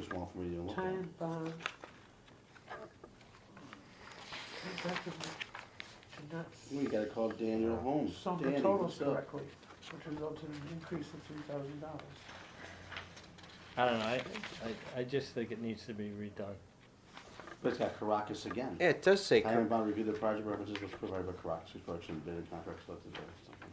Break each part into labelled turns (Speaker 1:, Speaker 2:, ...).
Speaker 1: for me to look at.
Speaker 2: Time bomb. Executive should not
Speaker 1: We gotta call Daniel Holmes.
Speaker 2: sum the
Speaker 1: Danny,
Speaker 2: totals
Speaker 1: what's up?
Speaker 2: correctly, which resulted in an increase of three thousand dollars.
Speaker 3: I don't know, I, I, I just think it needs to be redone.
Speaker 1: But it's got Caracas again.
Speaker 4: Yeah, it does say,
Speaker 1: Time
Speaker 4: cor-
Speaker 1: and bond review the project references was provided by Caracas, which collection bid and contract selected by something.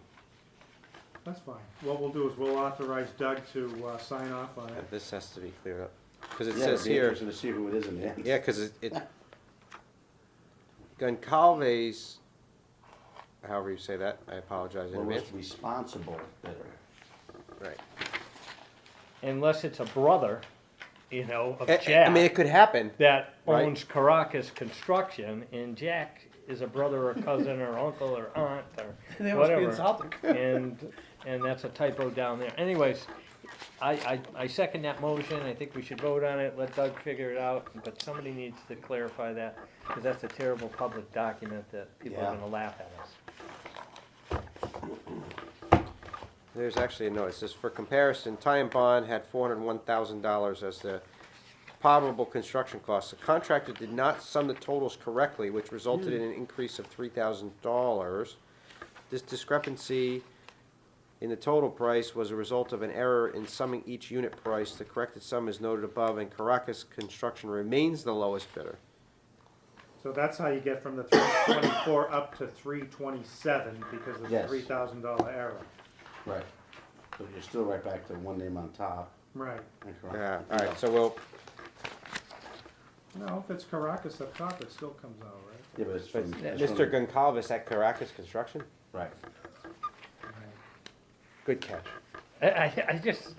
Speaker 5: That's fine. What we'll do is we'll authorize Doug to uh, sign off on
Speaker 4: yeah,
Speaker 5: it.
Speaker 4: this has to be cleared up, because it
Speaker 1: Yeah, it'd
Speaker 4: says
Speaker 1: be
Speaker 4: here,
Speaker 1: interesting to see who it is in the end.
Speaker 4: yeah, because it, it- Goncalves, however you say that, I apologize in
Speaker 1: Or
Speaker 4: advance,
Speaker 1: was responsible bidder.
Speaker 4: right.
Speaker 3: Unless it's a brother, you know, of
Speaker 4: I- I- I mean, it
Speaker 3: Jack,
Speaker 4: could happen,
Speaker 3: that
Speaker 4: Right.
Speaker 3: owns Caracas Construction, and Jack is a brother or cousin or uncle or aunt or whatever. And, and that's a typo down there. Anyways, I, I, I second that motion, I think we should vote on it, let Doug figure it out, but somebody needs to clarify that, because that's a terrible public document that people are
Speaker 1: Yeah.
Speaker 3: gonna laugh at us.
Speaker 4: There's actually a note, it says, for comparison, Ty and Bond had four hundred and one thousand dollars as the probable construction costs. The contractor did not sum the totals correctly, which resulted in an
Speaker 5: Hmm.
Speaker 4: increase of three thousand dollars. This discrepancy in the total price was a result of an error in summing each unit price. The corrected sum is noted above, and Caracas Construction remains the lowest bidder.
Speaker 5: So that's how you get from the three twenty-four up to three twenty-seven because of the
Speaker 1: Yes.
Speaker 5: three thousand dollar error.
Speaker 1: Right. But you're still right back to one name on top.
Speaker 5: Right.
Speaker 1: and
Speaker 4: Yeah,
Speaker 1: Caracas.
Speaker 4: all right, so we'll,
Speaker 5: No, if it's Caracas up top, it still comes out, right?
Speaker 1: Yeah, but it's from. it's
Speaker 4: Mr.
Speaker 1: from-
Speaker 4: Goncalves at Caracas Construction,
Speaker 1: Right.
Speaker 4: good catch.
Speaker 3: I, I, I just,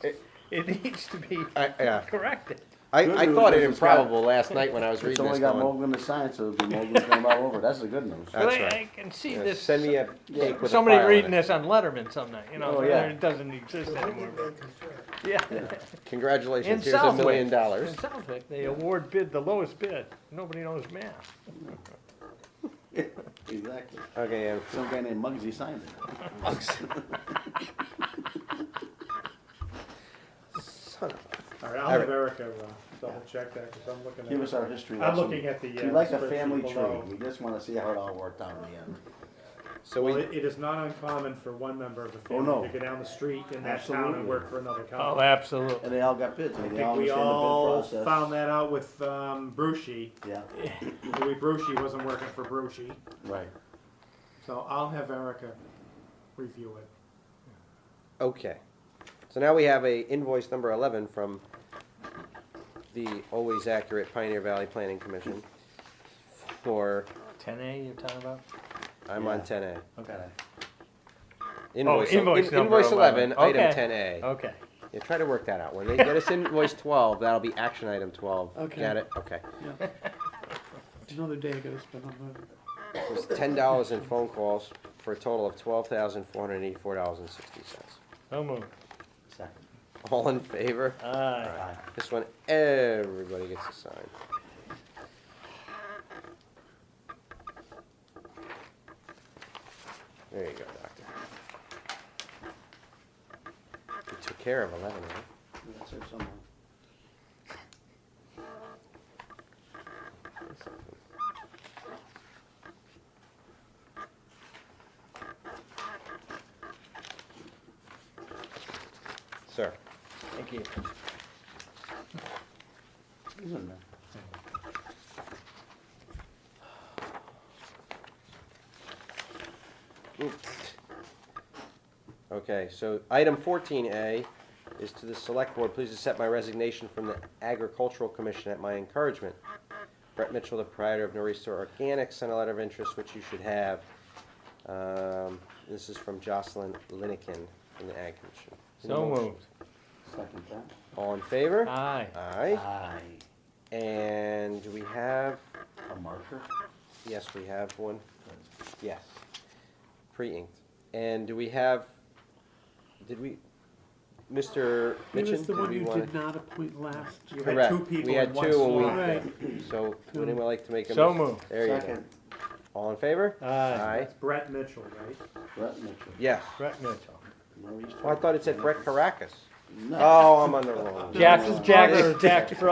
Speaker 3: it needs to be
Speaker 4: I, yeah,
Speaker 3: corrected.
Speaker 4: I,
Speaker 1: Good
Speaker 4: I
Speaker 1: news
Speaker 4: thought it
Speaker 1: is it's got-
Speaker 4: improbable last night when I was
Speaker 1: It's
Speaker 4: reading this
Speaker 1: only got
Speaker 4: going,
Speaker 1: Mogul to sign, so it'll be Mogul's name all over. That's the good news.
Speaker 4: That's
Speaker 3: But I-
Speaker 4: right.
Speaker 3: I can see
Speaker 4: yeah,
Speaker 3: this,
Speaker 4: Send me a cake with a
Speaker 3: somebody
Speaker 4: file in
Speaker 3: reading
Speaker 4: it.
Speaker 3: this on Letterman some night, you know,
Speaker 1: Oh, yeah.
Speaker 3: it doesn't exist anymore. Yeah. In
Speaker 4: Congratulations, here's a
Speaker 3: Southwick.
Speaker 4: million dollars.
Speaker 3: In Southwick, they award bid the lowest bid, nobody knows math.
Speaker 1: Exactly.
Speaker 4: Okay, um, yeah.
Speaker 1: Some guy named Muggsy signed it.
Speaker 4: Son of
Speaker 5: All right, I'll have Erica uh, double check that because I'm looking at.
Speaker 1: Give us our history
Speaker 5: I'm
Speaker 1: lesson.
Speaker 5: looking at the, uh,
Speaker 1: We like a
Speaker 5: spreadsheet
Speaker 1: family
Speaker 5: below.
Speaker 1: tree. We just wanna see how it all worked out in the end.
Speaker 4: a- So
Speaker 5: Well,
Speaker 4: we,
Speaker 5: it, it is not uncommon for one member of the
Speaker 1: Oh, no.
Speaker 5: family to go down the street in that town
Speaker 1: Absolutely.
Speaker 5: and work for another
Speaker 3: Oh,
Speaker 5: company.
Speaker 3: absolutely.
Speaker 1: And they all got bids, and
Speaker 5: I
Speaker 1: they all
Speaker 5: think we
Speaker 1: understand
Speaker 5: all
Speaker 1: the bid process.
Speaker 5: found that out with, um, Brucey.
Speaker 1: Yeah,
Speaker 5: Louis Brucey wasn't working for Brucey,
Speaker 1: right.
Speaker 5: so I'll have Erica review it.
Speaker 4: okay. So now we have a invoice number eleven from the always accurate Pioneer Valley Planning Commission for,
Speaker 3: Ten A you're talking about?
Speaker 4: I'm on
Speaker 1: Yeah.
Speaker 4: ten A.
Speaker 1: Okay.
Speaker 4: Invoice,
Speaker 3: Oh, invoice
Speaker 4: in-
Speaker 3: number
Speaker 4: invoice eleven,
Speaker 3: 11,
Speaker 4: item
Speaker 3: okay.
Speaker 4: ten A.
Speaker 3: Okay.
Speaker 4: Yeah, try to work that out. When they get us invoice twelve, that'll be action item twelve.
Speaker 2: Okay.
Speaker 4: Got it? Okay.
Speaker 2: Another day goes, but I'm,
Speaker 4: It was ten dollars in phone calls for a total of twelve thousand four hundred eighty-four dollars and sixty cents.
Speaker 3: So moved.
Speaker 1: Second.
Speaker 4: All in favor?
Speaker 3: Aye.
Speaker 1: Aye.
Speaker 4: This one, everybody gets a sign. There you go, doctor. You took care of eleven, right?
Speaker 1: That's it, someone.
Speaker 4: Sir,
Speaker 3: Thank you.
Speaker 1: He's in there.
Speaker 4: okay, so item fourteen A is to the select board, please accept my resignation from the agricultural commission at my encouragement. Brett Mitchell, the proprietor of Nor'easter Organic, sent a letter of interest, which you should have. Um, this is from Jocelyn Linikin from the ag commission. Need a
Speaker 3: So
Speaker 4: motion?
Speaker 3: moved.
Speaker 1: Second that.
Speaker 4: All in favor?
Speaker 3: Aye.
Speaker 4: Aye,
Speaker 1: Aye.
Speaker 4: and do we have,
Speaker 1: A marker?
Speaker 4: yes, we have one, yes, pre-inked. And do we have, did we, Mr.
Speaker 2: he was
Speaker 4: Mitchin,
Speaker 2: the
Speaker 4: did
Speaker 2: one
Speaker 4: we
Speaker 2: you
Speaker 4: want?
Speaker 2: did not appoint last
Speaker 5: You
Speaker 2: year.
Speaker 5: had
Speaker 4: Correct.
Speaker 5: two
Speaker 4: We
Speaker 5: people
Speaker 4: had
Speaker 5: in one
Speaker 4: two and we-
Speaker 5: slot.
Speaker 2: Right,
Speaker 4: So, would anyone like to make a?
Speaker 3: So
Speaker 4: motion?
Speaker 3: moved.
Speaker 4: There you go.
Speaker 1: Second.
Speaker 4: All in favor?
Speaker 3: Aye.
Speaker 4: Aye,
Speaker 5: That's Brett Mitchell, right?
Speaker 1: Brett Mitchell.
Speaker 4: yes.
Speaker 3: Brett Mitchell.
Speaker 1: Maurice
Speaker 4: Oh, Well, I thought it said Brett Caracas.
Speaker 1: No.
Speaker 4: Oh, I'm on the wrong.
Speaker 3: Jack's, Jack's, Jack's brother.